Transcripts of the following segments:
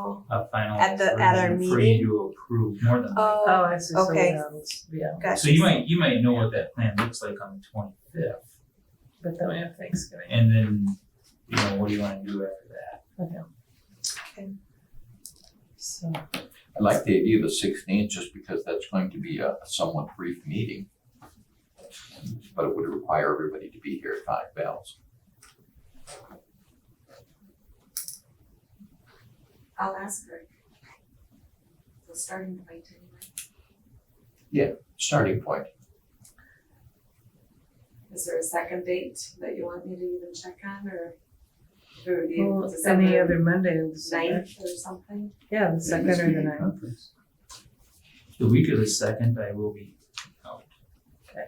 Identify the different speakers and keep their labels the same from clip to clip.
Speaker 1: final,
Speaker 2: a final
Speaker 1: At the- at our
Speaker 2: version for
Speaker 1: meeting?
Speaker 2: you to approve more than likely.
Speaker 1: oh,
Speaker 3: Oh,
Speaker 4: Um,
Speaker 3: I see, so
Speaker 1: okay.
Speaker 3: yeah, it's- yeah,
Speaker 1: gotcha.
Speaker 2: So you might, you might know what that plan looks like on the twenty-fifth,
Speaker 3: but then we have Thanksgiving.
Speaker 2: and then, you know, what do you wanna do after that?
Speaker 3: So,
Speaker 5: I like the idea of the sixteenth, just because that's going to be a somewhat brief meeting. But it would require everybody to be here at five bells.
Speaker 4: I'll ask her. We'll start in the bite anyway.
Speaker 5: Starting point,
Speaker 4: Is there a second date that you want me to even check on or? Or do you
Speaker 3: well, any
Speaker 4: December
Speaker 3: other Monday in December?
Speaker 4: ninth or something?
Speaker 3: Yeah, the second or the
Speaker 5: Maybe
Speaker 3: ninth.
Speaker 2: The week of the second, I will be out.
Speaker 3: Okay.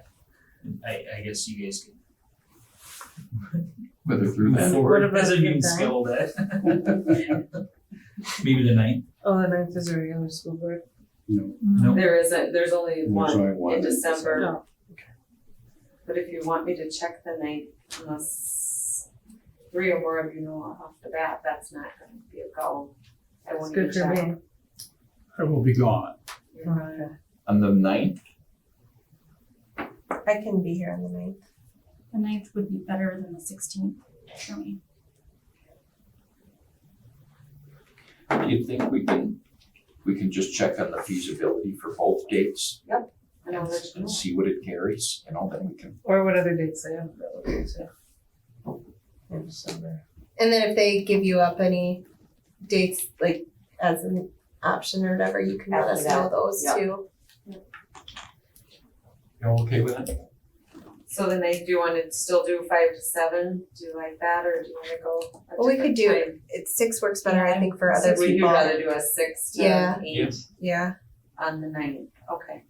Speaker 2: I, I guess you guys can
Speaker 5: whether through
Speaker 2: move
Speaker 5: that,
Speaker 3: What
Speaker 2: forward,
Speaker 3: about
Speaker 2: as if
Speaker 3: the
Speaker 2: you can
Speaker 3: ninth?
Speaker 2: scale that. Maybe the ninth,
Speaker 3: Oh, the ninth is a regular school board.
Speaker 2: no,
Speaker 4: There isn't, there's only one
Speaker 6: only
Speaker 4: in December,
Speaker 3: No,
Speaker 4: but if you want me to check the night, unless three or more of you know off the bat, that's not gonna be a goal. I
Speaker 3: it's
Speaker 4: won't even
Speaker 3: good for
Speaker 4: check.
Speaker 3: me.
Speaker 6: I will be gone.
Speaker 4: You're right.
Speaker 5: on the ninth,
Speaker 1: I can be here on the ninth.
Speaker 7: The ninth would be better than the sixteenth for me.
Speaker 5: do you think we can, we can just check on the feasibility for both dates?
Speaker 4: And I'll let you know.
Speaker 5: And see what it carries, you know, then we can,
Speaker 3: Or what other dates they have available too. In December.
Speaker 1: And then if they give you up any dates, like as an option or whatever, you can let us
Speaker 4: After
Speaker 1: know those
Speaker 4: Yep.
Speaker 1: too.
Speaker 5: you're okay with it?
Speaker 4: So the night, do you wanna still do five to seven? Do you like that or do you wanna go a
Speaker 1: Well, we
Speaker 4: different
Speaker 1: could do
Speaker 4: time?
Speaker 1: It six works better, I think, for
Speaker 4: So
Speaker 1: other
Speaker 4: Would you
Speaker 1: people.
Speaker 4: rather do a six to
Speaker 1: Yeah.
Speaker 4: eight
Speaker 1: Yeah,
Speaker 4: on the ninth? Okay.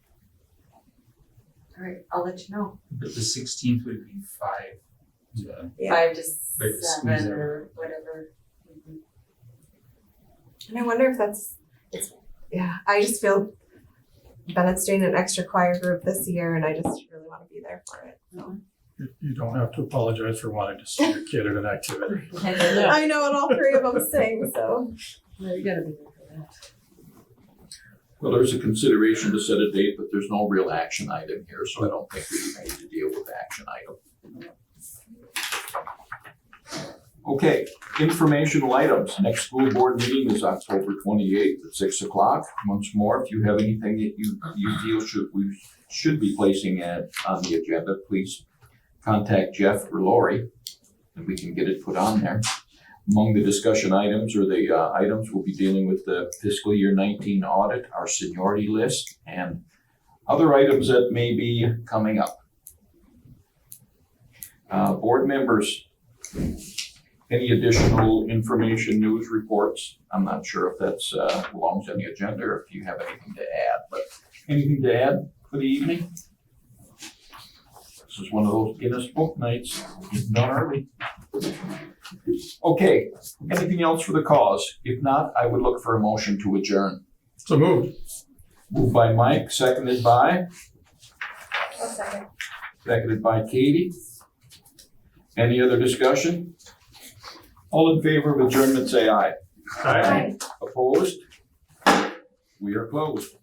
Speaker 4: All right, I'll let you know.
Speaker 2: but the sixteenth would be five uh, to
Speaker 1: Yeah.
Speaker 4: Five
Speaker 2: Like
Speaker 4: to
Speaker 2: to squeeze
Speaker 4: seven or whatever. Mhm.
Speaker 1: and I wonder if that's, it's, yeah, I just feel Bennett's doing an extra choir group this year and I just really wanna be there for it.
Speaker 6: You, you don't have to apologize for wanting to see your kid at an activity.
Speaker 3: Yeah.
Speaker 1: I know, and all three of them sing, so.
Speaker 3: No, you gotta be there for that.
Speaker 5: Well, there's a consideration to set a date, but there's no real action item here, so I don't think we even need to deal with the action item. Okay, informational items. Next school board meeting is October twenty-eighth at six o'clock. Once more, if you have anything that you, you feel should, we should be placing at, on the agenda, please contact Jeff or Lori, and we can get it put on there. Among the discussion items or the uh, items, we'll be dealing with the fiscal year 19 audit, our seniority list, and other items that may be coming up. Uh, Board members, any additional information, news reports? I'm not sure if that's uh, belongs on the agenda or if you have anything to add, but anything to add for the evening? This is one of those Guinness Book nights, getting done early. Okay, Anything else for the cause? If not, I would look for a motion to adjourn.
Speaker 6: So moved.
Speaker 5: Moved by Mike, seconded by, seconded by Katie. Any other discussion? All in favor of adjournment, say aye.
Speaker 6: Aye.
Speaker 5: Opposed? We are closed.